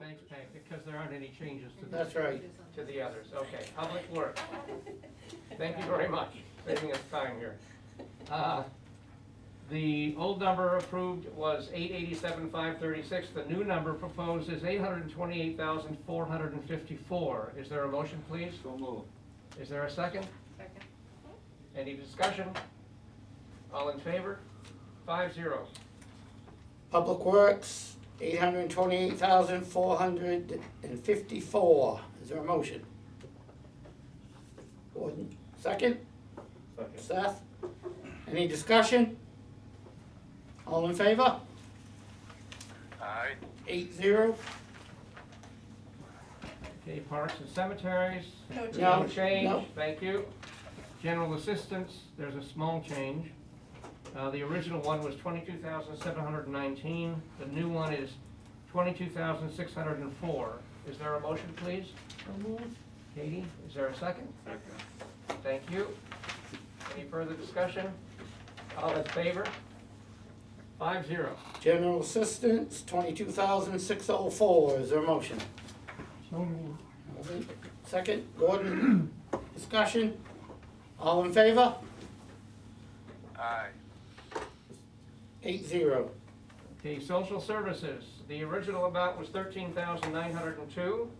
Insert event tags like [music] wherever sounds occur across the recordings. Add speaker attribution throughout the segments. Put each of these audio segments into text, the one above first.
Speaker 1: thanks, Pat, because there aren't any changes to the,
Speaker 2: That's right.
Speaker 1: to the others. Okay, Public Works. Thank you very much, saving us time here. Uh, The old number approved was eight eighty-seven, five thirty-six. The new number proposed is eight hundred and twenty-eight thousand, four hundred and fifty-four. Is there a motion, please?
Speaker 3: So moved.
Speaker 1: Is there a second?
Speaker 4: Second.
Speaker 1: Any discussion? All in favor? Five zero.
Speaker 2: Public Works, eight hundred and twenty-eight thousand, four hundred and fifty-four. Is there a motion? Gordon, second?
Speaker 3: Second.
Speaker 2: Seth? Any discussion? All in favor?
Speaker 5: Aye.
Speaker 2: Eight zero?
Speaker 1: Okay, parks and cemeteries.
Speaker 4: No
Speaker 1: there's
Speaker 2: change. No.
Speaker 1: change, thank you. General assistance, there's a small change. Uh, the original one was twenty-two thousand seven hundred and nineteen, the new one is twenty-two thousand six hundred and four. Is there a motion, please? Katie, is there a second?
Speaker 3: Second.
Speaker 1: Thank you. Any further discussion? All in favor? Five zero.
Speaker 2: General assistance, twenty-two thousand, six oh four. Is there a motion? Second, Gordon, discussion? All in favor?
Speaker 5: Aye.
Speaker 2: Eight zero.
Speaker 1: The social services, the original amount was thirteen thousand nine hundred and two.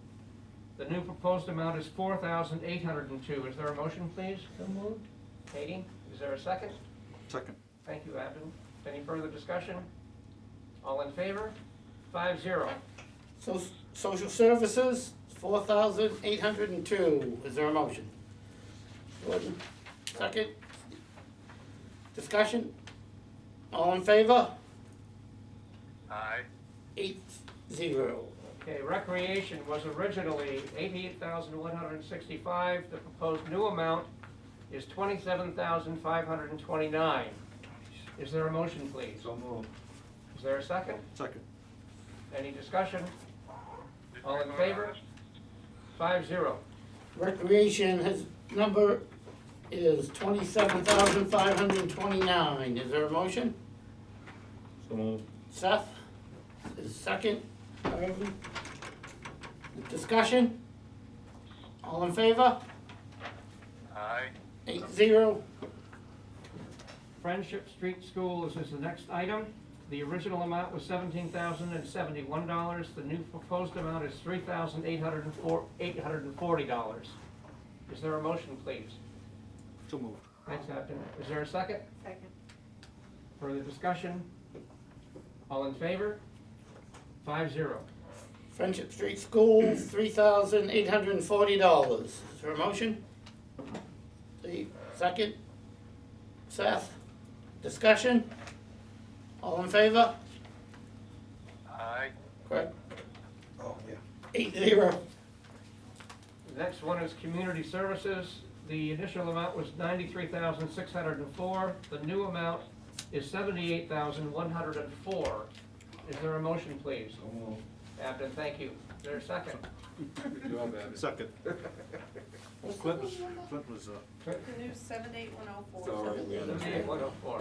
Speaker 1: The new proposed amount is four thousand eight hundred and two. Is there a motion, please? So moved. Katie, is there a second?
Speaker 3: Second.
Speaker 1: Thank you, Abden. Any further discussion? All in favor? Five zero.
Speaker 2: So, social services, four thousand eight hundred and two, is there a motion? Gordon, second. Discussion? All in favor?
Speaker 5: Aye.
Speaker 2: Eight zero.
Speaker 1: Okay, recreation was originally eighty-eight thousand one hundred and sixty-five. The proposed new amount is twenty-seven thousand five hundred and twenty-nine. Is there a motion, please?
Speaker 3: So moved.
Speaker 1: Is there a second?
Speaker 3: Second.
Speaker 1: Any discussion?
Speaker 5: Did
Speaker 1: All
Speaker 5: we
Speaker 1: in
Speaker 5: vote on
Speaker 1: favor?
Speaker 5: this?
Speaker 1: Five zero.
Speaker 2: Recreation, his number is twenty-seven thousand five hundred and twenty-nine, is there a motion?
Speaker 3: So moved.
Speaker 2: Seth, is second, Irvin? Discussion? All in favor?
Speaker 5: Aye.
Speaker 2: Eight zero.
Speaker 1: Friendship Street Schools is the next item. The original amount was seventeen thousand and seventy-one dollars. The new proposed amount is three thousand eight hundred and four, eight hundred and forty dollars. Is there a motion, please?
Speaker 3: So moved.
Speaker 1: Thanks, Captain. Is there a second?
Speaker 4: Second.
Speaker 1: Further discussion? All in favor? Five zero.
Speaker 2: Friendship Street School, three thousand eight hundred and forty dollars. Is there a motion? The second, Seth, discussion? All in favor?
Speaker 5: Aye.
Speaker 2: Correct,
Speaker 3: Oh, yeah.
Speaker 2: eight zero.
Speaker 1: The Next one is community services. The initial amount was ninety-three thousand, six hundred and four. The new amount is seventy-eight thousand, one hundred and four. Is there a motion, please?
Speaker 3: So moved.
Speaker 1: Abden, thank you. Is there a second?
Speaker 3: Good job, Abby. Second. Clint was, Clint was, uh,
Speaker 4: The new seven eight one oh four.
Speaker 3: Sorry, we
Speaker 1: Seventy-eight, one oh four.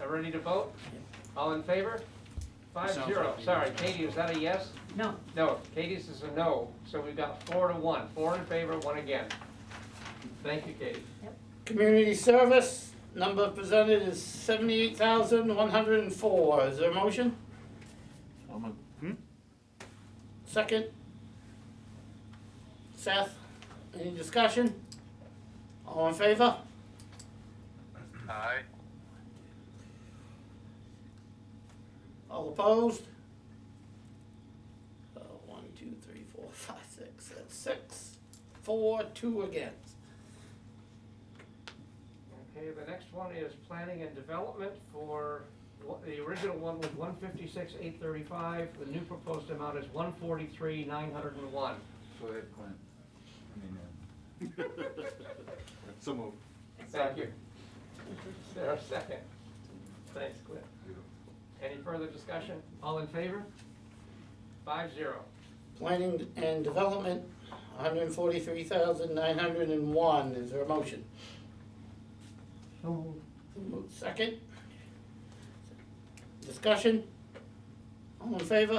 Speaker 1: Are ready to vote? All in favor? Five
Speaker 3: Sounds
Speaker 1: zero.
Speaker 3: like a yes.
Speaker 1: Sorry, Katie, is that a yes?
Speaker 6: No.
Speaker 1: No, Katie's is a no, so we've got four to one. Four in favor, one again. Thank you, Katie.
Speaker 2: Community service, number presented is seventy-eight thousand one hundred and four. Is there a motion?
Speaker 3: I'm a,
Speaker 2: Second? Seth, any discussion? All in favor?
Speaker 5: Aye.
Speaker 2: All opposed? Uh, one, two, three, four, five, six, that's six, four, two against.
Speaker 1: Okay, the next one is planning and development for, the original one was one fifty-six, eight thirty-five, the new proposed amount is one forty-three, nine hundred and one.
Speaker 7: Go ahead, Clint. I mean, uh,
Speaker 3: uh, [laughs] so moved.
Speaker 1: Thank you. Is there a second? Thanks, Cliff. Any further discussion? All in favor? Five zero.
Speaker 2: Planning and development, hundred and forty-three thousand nine hundred and one, is there a motion? Second? Discussion? All in favor?